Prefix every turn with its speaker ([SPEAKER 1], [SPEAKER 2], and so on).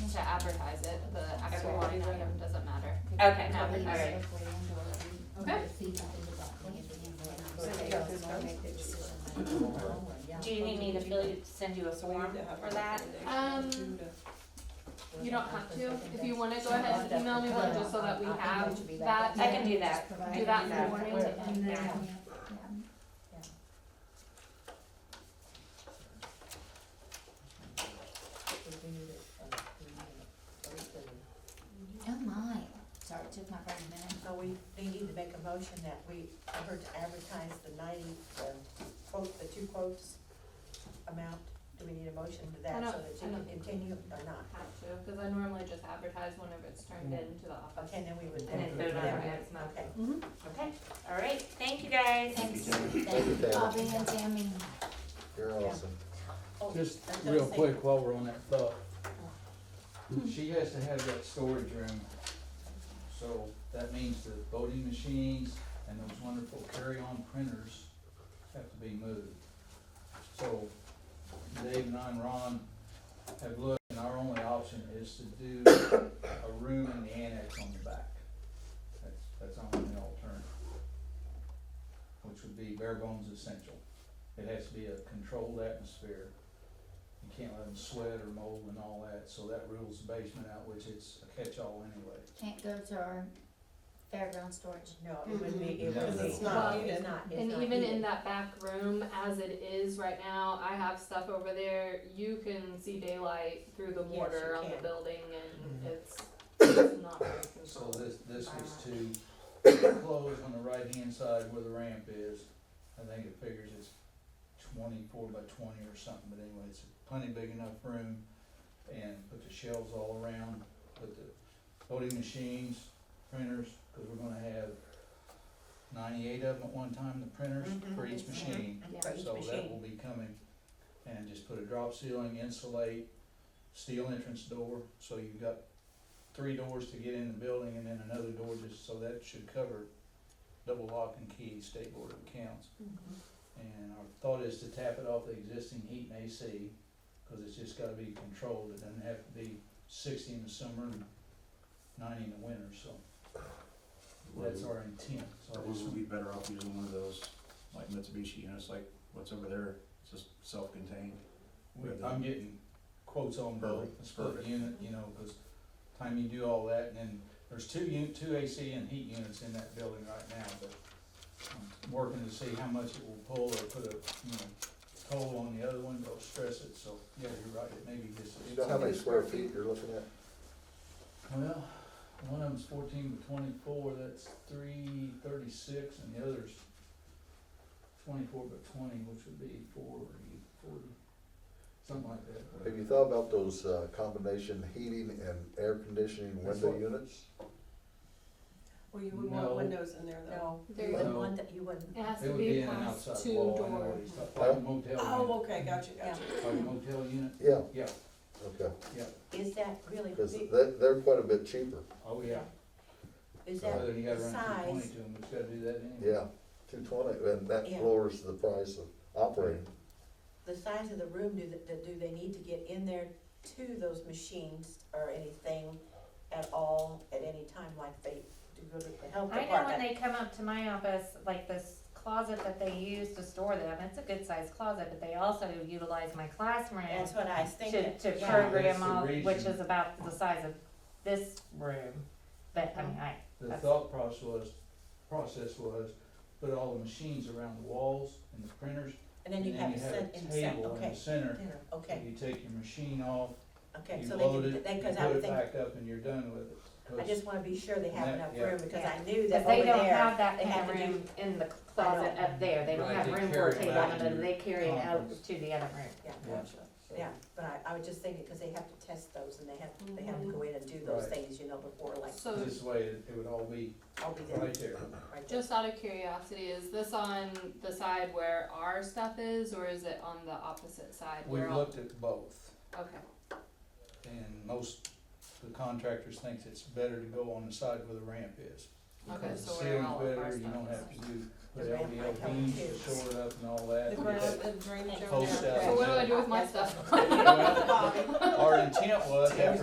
[SPEAKER 1] advertise it, the actual
[SPEAKER 2] Okay.
[SPEAKER 1] line item doesn't matter.
[SPEAKER 3] Okay,
[SPEAKER 1] No,
[SPEAKER 3] all right.
[SPEAKER 1] Okay.
[SPEAKER 3] Do you need me to fill, you- send you a form for that?
[SPEAKER 1] Um, You don't have to, if you wanna go ahead and email me one just so that we have that.
[SPEAKER 3] I can do that. I
[SPEAKER 1] Do
[SPEAKER 3] can
[SPEAKER 1] that in the morning and then,
[SPEAKER 3] Yeah.
[SPEAKER 4] Oh my, sorry, it took my brain a minute.
[SPEAKER 2] So we, they need to make a motion that we, I heard to advertise the ninety, the quote, the two quotes amount. Do we need a motion to
[SPEAKER 1] I
[SPEAKER 2] that so
[SPEAKER 1] don't-
[SPEAKER 2] that
[SPEAKER 1] I
[SPEAKER 2] you
[SPEAKER 1] don't-
[SPEAKER 2] can continue or not?
[SPEAKER 1] have to, cause I normally just advertise whenever it's turned into the office.
[SPEAKER 2] Mm-hmm. Okay, then we would.
[SPEAKER 3] And then vote on it next month.
[SPEAKER 2] Okay.
[SPEAKER 3] Okay, all right, thank you guys.
[SPEAKER 4] Thanks,
[SPEAKER 5] Thank you,
[SPEAKER 4] thank you,
[SPEAKER 5] Taylor.
[SPEAKER 4] Bobby and Tammy.
[SPEAKER 5] You're awesome.
[SPEAKER 2] Oh,
[SPEAKER 6] Just
[SPEAKER 2] I was gonna
[SPEAKER 6] real
[SPEAKER 2] say- Oh.
[SPEAKER 6] quick while we're on that thought, she has to have that storage room. So that means the voting machines and those wonderful carry-on printers have to be moved. So Dave and I and Ron have looked and our only option is to do a room in the annex on the back. That's, that's our only alternative. Which would be bare bones essential. It has to be a controlled atmosphere. You can't let them sweat or mold and all that, so that rules the basement out, which it's a catch-all anyway.
[SPEAKER 4] Can't go to our fairground storage.
[SPEAKER 2] No, it would be, it
[SPEAKER 5] No,
[SPEAKER 2] would be.
[SPEAKER 5] that's
[SPEAKER 1] not-
[SPEAKER 2] It's not, it's
[SPEAKER 1] And
[SPEAKER 2] not
[SPEAKER 1] even in
[SPEAKER 2] needed.
[SPEAKER 1] that back room, as it is right now, I have stuff over there, you can see daylight through the
[SPEAKER 2] Yes, you
[SPEAKER 1] mortar on the
[SPEAKER 2] can.
[SPEAKER 1] building and it's, it's not very
[SPEAKER 6] Mm-hmm. So
[SPEAKER 1] controlled.
[SPEAKER 6] this, this was to close on the right-hand side where the ramp is. I think it figures it's twenty-four by twenty or something, but anyway, it's plenty big enough room. And put the shelves all around, put the voting machines, printers, cause we're gonna have ninety-eight of them at one time, the printers
[SPEAKER 2] Mhm,
[SPEAKER 6] for each
[SPEAKER 2] mhm.
[SPEAKER 6] machine.
[SPEAKER 1] Yeah.
[SPEAKER 2] For each
[SPEAKER 6] So that will
[SPEAKER 2] machine.
[SPEAKER 6] be coming, and just put a drop ceiling, insulate, steel entrance door, so you've got three doors to get in the building and then another door just, so that should cover double lock and key, state board of accounts.
[SPEAKER 2] Mhm.
[SPEAKER 6] And our thought is to tap it off the existing heat and AC, cause it's just gotta be controlled, it doesn't have to be sixty in the summer and ninety in the winter, so that's our intent, so
[SPEAKER 7] Or
[SPEAKER 6] I just
[SPEAKER 7] would we be better off using one of those, like Mitsubishi, you know, it's like, what's over there, it's just self-contained.
[SPEAKER 6] We- I'm getting quotes on both,
[SPEAKER 7] Perfect,
[SPEAKER 6] a split
[SPEAKER 7] perfect.
[SPEAKER 6] unit, you know, cause time you do all that, and then there's two un, two AC and heat units in that building right now, but I'm working to see how much it will pull or put a, you know, toll on the other one, don't stress it, so, yeah, you're right, it may be just.
[SPEAKER 5] You know how many square feet you're looking at?
[SPEAKER 6] Well, one of them's fourteen to twenty-four, that's three thirty-six, and the other's twenty-four by twenty, which would be four, forty, something like that.
[SPEAKER 5] Have you thought about those uh, combination heating and air conditioning
[SPEAKER 6] That's
[SPEAKER 5] window
[SPEAKER 6] what-
[SPEAKER 5] units?
[SPEAKER 8] Well, you would want
[SPEAKER 6] No.
[SPEAKER 8] windows in there though.
[SPEAKER 2] No,
[SPEAKER 1] There
[SPEAKER 2] you
[SPEAKER 1] you
[SPEAKER 2] wouldn't
[SPEAKER 6] go.
[SPEAKER 2] want that, you wouldn't.
[SPEAKER 1] It has
[SPEAKER 6] It
[SPEAKER 1] to
[SPEAKER 6] would
[SPEAKER 1] be
[SPEAKER 6] in an
[SPEAKER 1] class
[SPEAKER 6] outside
[SPEAKER 1] two
[SPEAKER 6] wall, I know
[SPEAKER 1] door.
[SPEAKER 6] what he's talking, like a motel
[SPEAKER 8] Oh, okay, gotcha, gotcha.
[SPEAKER 6] unit, like a motel unit,
[SPEAKER 5] Yeah,
[SPEAKER 6] yeah,
[SPEAKER 5] okay,
[SPEAKER 6] yeah,
[SPEAKER 2] Is that really
[SPEAKER 5] because
[SPEAKER 2] big?
[SPEAKER 5] they're, they're quite a bit cheaper,
[SPEAKER 6] oh, yeah.
[SPEAKER 2] Is that
[SPEAKER 6] Other than you gotta run two twenty
[SPEAKER 2] size?
[SPEAKER 6] to them, it's gotta do that anyway.
[SPEAKER 5] yeah, two twenty, and that
[SPEAKER 2] Yeah.
[SPEAKER 5] lowers the price of operating.
[SPEAKER 2] the size of the room, do, th- do they need to get in there to those machines or anything at all, at any time, like they do go to the health
[SPEAKER 3] I know when
[SPEAKER 2] department?
[SPEAKER 3] they come up to my office, like this closet that they use to store them, it's a good sized closet, but they also utilize my classroom
[SPEAKER 2] That's what I was
[SPEAKER 3] to,
[SPEAKER 2] thinking.
[SPEAKER 3] to
[SPEAKER 2] yeah.
[SPEAKER 6] That's
[SPEAKER 3] program
[SPEAKER 6] the
[SPEAKER 3] all, which
[SPEAKER 6] reason.
[SPEAKER 3] is about the size of this room. But I mean, I,
[SPEAKER 6] The
[SPEAKER 3] That's-
[SPEAKER 6] thought process was, process was, put all the machines around the walls and the printers,
[SPEAKER 2] And
[SPEAKER 6] and
[SPEAKER 2] then
[SPEAKER 6] then
[SPEAKER 2] you have it set
[SPEAKER 6] a
[SPEAKER 2] in the set,
[SPEAKER 6] table in
[SPEAKER 2] okay,
[SPEAKER 6] the center,
[SPEAKER 2] dinner,
[SPEAKER 6] and
[SPEAKER 2] okay,
[SPEAKER 6] you take your machine off,
[SPEAKER 2] okay,
[SPEAKER 6] you
[SPEAKER 2] so
[SPEAKER 6] load
[SPEAKER 2] they
[SPEAKER 6] it,
[SPEAKER 2] could, they,
[SPEAKER 6] you
[SPEAKER 2] cause I
[SPEAKER 6] put
[SPEAKER 2] would
[SPEAKER 6] it
[SPEAKER 2] think,
[SPEAKER 6] back up, and you're done with it. 'cause
[SPEAKER 2] I just wanna be sure they have
[SPEAKER 6] That-
[SPEAKER 2] enough
[SPEAKER 6] yeah.
[SPEAKER 2] room, because
[SPEAKER 3] Yeah.
[SPEAKER 2] I knew that
[SPEAKER 3] But they
[SPEAKER 2] over
[SPEAKER 3] don't
[SPEAKER 2] there,
[SPEAKER 3] have that
[SPEAKER 2] they
[SPEAKER 3] kind
[SPEAKER 2] have
[SPEAKER 3] of
[SPEAKER 2] to
[SPEAKER 3] room in the closet up there, they don't
[SPEAKER 6] Right,
[SPEAKER 3] have
[SPEAKER 6] they
[SPEAKER 3] room for
[SPEAKER 6] carry
[SPEAKER 3] a
[SPEAKER 6] it
[SPEAKER 3] table,
[SPEAKER 6] back
[SPEAKER 3] but
[SPEAKER 6] to your
[SPEAKER 3] they carry it out
[SPEAKER 6] conference.
[SPEAKER 3] to the other room.
[SPEAKER 2] yeah,
[SPEAKER 6] Yeah.
[SPEAKER 2] gotcha,
[SPEAKER 6] so-
[SPEAKER 2] yeah, but I, I was just thinking, cause they have to test those and they have, they have
[SPEAKER 6] Oh
[SPEAKER 2] to go in and do those
[SPEAKER 6] Right.
[SPEAKER 2] things, you know, before, like,
[SPEAKER 1] So
[SPEAKER 6] This way, it it would all be
[SPEAKER 2] I'll be there,
[SPEAKER 6] right there.
[SPEAKER 2] right there.
[SPEAKER 1] just out of curiosity, is this on the side where our stuff is or is it on the opposite side
[SPEAKER 6] We've
[SPEAKER 1] where all?
[SPEAKER 6] looked at both.
[SPEAKER 1] Okay,
[SPEAKER 6] And most, the contractors thinks it's better to go on the side where the ramp is.
[SPEAKER 1] okay,
[SPEAKER 6] Because
[SPEAKER 1] so
[SPEAKER 6] the
[SPEAKER 1] where
[SPEAKER 6] ceiling's
[SPEAKER 1] all of our
[SPEAKER 6] better,
[SPEAKER 1] stuff is.
[SPEAKER 6] you don't have to do, put
[SPEAKER 2] The ramp might
[SPEAKER 6] LVL
[SPEAKER 2] help
[SPEAKER 6] beams
[SPEAKER 2] too.
[SPEAKER 6] to shore it up and all that.
[SPEAKER 8] The
[SPEAKER 6] You
[SPEAKER 8] ground,
[SPEAKER 6] get-
[SPEAKER 8] the drainage
[SPEAKER 6] Post
[SPEAKER 8] over there.
[SPEAKER 6] out.
[SPEAKER 1] So what do I do with my stuff?
[SPEAKER 6] Well, Our intent was, after